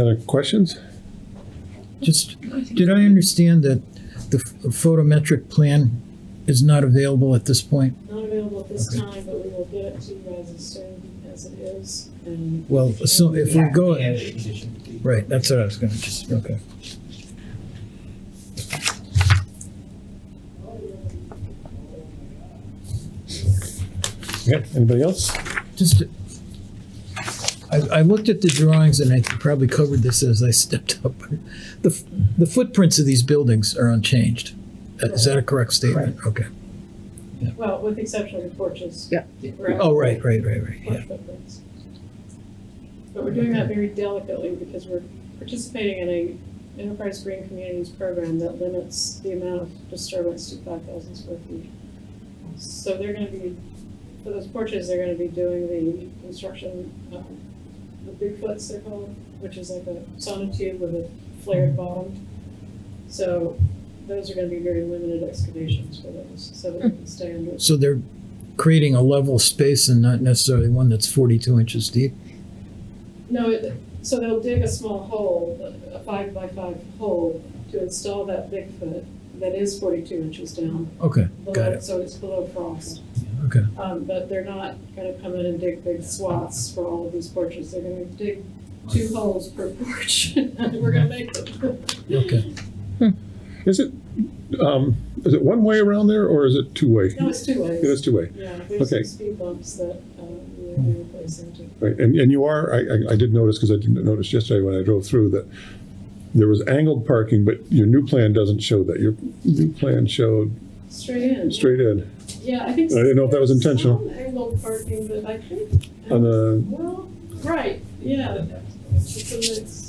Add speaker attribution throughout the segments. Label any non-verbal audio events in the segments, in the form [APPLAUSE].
Speaker 1: Other questions?
Speaker 2: Just, did I understand that the ph- photometric plan is not available at this point?
Speaker 3: Not available at this time, but we will get it to you guys as soon as it is, and
Speaker 2: Well, so if we go,
Speaker 4: Yeah, the condition.
Speaker 2: right, that's what I was gonna just, okay.
Speaker 1: Yep, anybody else?
Speaker 2: Just, I, I looked at the drawings and I probably covered this as I stepped up. The, f- the footprints of these buildings are unchanged. Uh, Is that a correct statement? Okay.
Speaker 3: Well, with the exception of the porches.
Speaker 5: Yeah.
Speaker 3: Correct?
Speaker 2: Oh, right, right, right, right, yeah.
Speaker 3: Porch footprints. But we're doing that very delicately because we're participating in a enterprise green communities program that limits the amount of disturbance to five thousand square feet. So they're gonna be, for those porches, they're gonna be doing the construction, um, the bigfoots they're called, which is like a sonotube with a flared bottom. So those are gonna be very limited excavations for those, so that they can stay under
Speaker 2: So they're creating a level space and not necessarily one that's forty-two inches deep?
Speaker 3: No, it- so they'll dig a small hole, a five by five hole, to install that Bigfoot that is forty-two inches down.
Speaker 2: Okay, got
Speaker 3: below-
Speaker 2: it,
Speaker 3: So it's below frost.
Speaker 2: okay.
Speaker 3: Um, but they're not gonna come in and dig big swaths for all of these porches. They're gonna dig two holes per [LAUGHS] porch. We're gonna make them.
Speaker 2: Okay.
Speaker 1: Is it, um, is it one way around there or is it two way?
Speaker 3: No, it's two
Speaker 1: It
Speaker 3: ways.
Speaker 1: is two way,
Speaker 3: Yeah, there's
Speaker 1: Okay.
Speaker 3: some speed bumps that, um, we're gonna replace into.
Speaker 1: right? And, and you are, I, I, I did notice, because I didn't notice yesterday when I drove through that there was angled parking, but your new plan doesn't show that. Your new plan showed
Speaker 3: Straight in.
Speaker 1: straight in
Speaker 3: Yeah, I think.
Speaker 1: I didn't know if that was intentional.
Speaker 3: Some angled parking, but I think.
Speaker 1: on the,
Speaker 3: Well, right, yeah. It's a mix.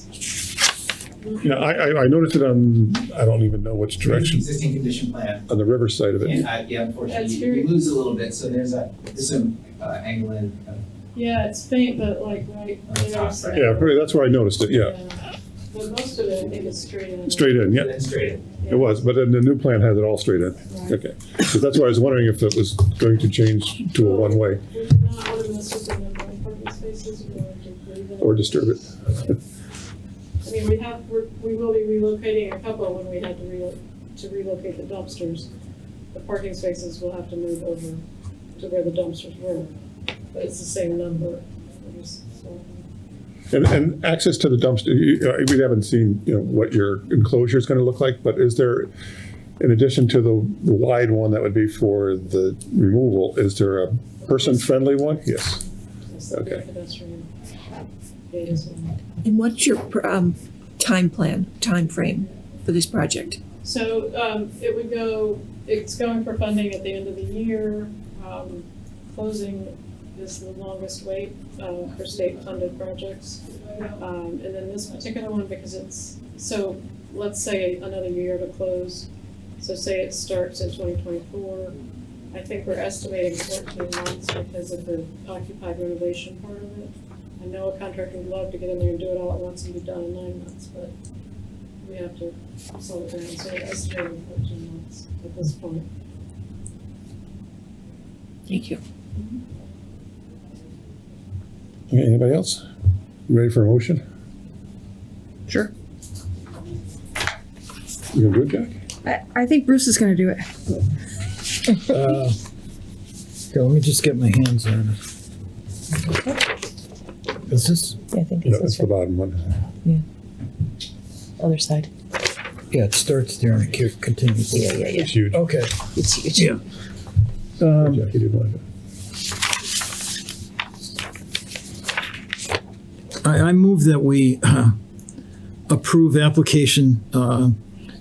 Speaker 1: you know, I, I, I noticed it on, I don't even know which direction,
Speaker 4: Existing condition plan.
Speaker 1: on the river side of it.
Speaker 4: And, uh, yeah, unfortunately,
Speaker 3: That's
Speaker 4: you- you
Speaker 3: very-
Speaker 4: lose a little bit, so there's a, there's some, uh, angle in, uh,
Speaker 3: Yeah, it's faint, but like right there. so-
Speaker 1: Yeah, pretty, that's where I noticed it, yeah.
Speaker 3: But most of it, I think, is straight in.
Speaker 1: Straight in, yeah.
Speaker 4: then straight.
Speaker 1: It was, but then the new plan has it all straight in. Okay. So that's why I was wondering if it was going to change to a one-way
Speaker 3: We do not want to mess with the number of parking spaces, we want to leave it.
Speaker 1: or disturb it.
Speaker 3: I mean, we have, we're- we will be relocating a couple when we had to relo, to relocate the dumpsters. The parking spaces will have to move over to where the dumpsters were, but it's the same number. um, We're just- so-
Speaker 1: And, and access to the dumpster, you- uh, we haven't seen, you know, what your enclosure is going to look like, but is there, in addition to the the wide one that would be for the removal, is there a person-friendly one? Yes.
Speaker 3: Yes, that'd be a
Speaker 1: Okay.
Speaker 3: pedestrian um, gate as well.
Speaker 6: And what's your um, time plan, time frame for this project?
Speaker 3: So, um, it would go, it's going for funding at the end of the year. Um, closing is the longest wait, uh, for state-funded projects. Um, and then this particular one, because it's, so, let's say another year to close. So say it starts in twenty twenty-four. I think we're estimating fourteen months because of the occupied renovation part of it. I know a contractor would love to get in there and do it all at once and be done in nine months, but we have to slow it down, so we're estimating fourteen months at this point.
Speaker 6: Thank you.
Speaker 1: Okay, anybody else? You Ready for a motion?
Speaker 5: Sure.
Speaker 1: You gonna do it, Jack?
Speaker 5: I, I think Bruce is gonna do it.
Speaker 2: Uh, Here, let me just get my hands on it. Is this,
Speaker 7: I think
Speaker 1: No,
Speaker 7: it's
Speaker 1: that's
Speaker 7: this
Speaker 1: the
Speaker 7: one,
Speaker 1: bottom one.
Speaker 7: other side.
Speaker 2: yeah, it starts there and it ca- continues.
Speaker 7: Yeah, yeah, yeah.
Speaker 1: It's huge.
Speaker 2: Okay.
Speaker 7: It's huge.
Speaker 2: Yeah.
Speaker 1: Jack, you did like it.
Speaker 2: I, I move that we [CLEARS THROAT] uh, approve application uh,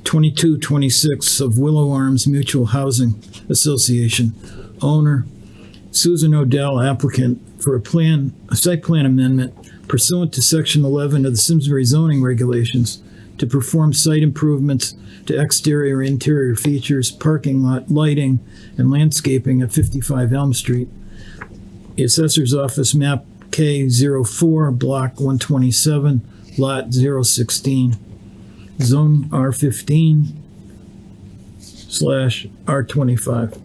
Speaker 2: 2226 of Willow Arms Mutual Housing Association, owner Susan Odell, applicant for a plan, a site plan amendment pursuant to section 11 of the Simsbury zoning regulations to perform site improvements to exterior, interior features, parking lot, lighting, and landscaping at 55 Elm Street the Assessor's Office, map K04, block 127, lot 016, zone R15 slash R25.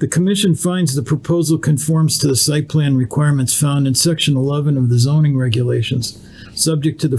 Speaker 2: The commission finds the proposal conforms to the site plan requirements found in section 11 of the zoning regulations, subject to the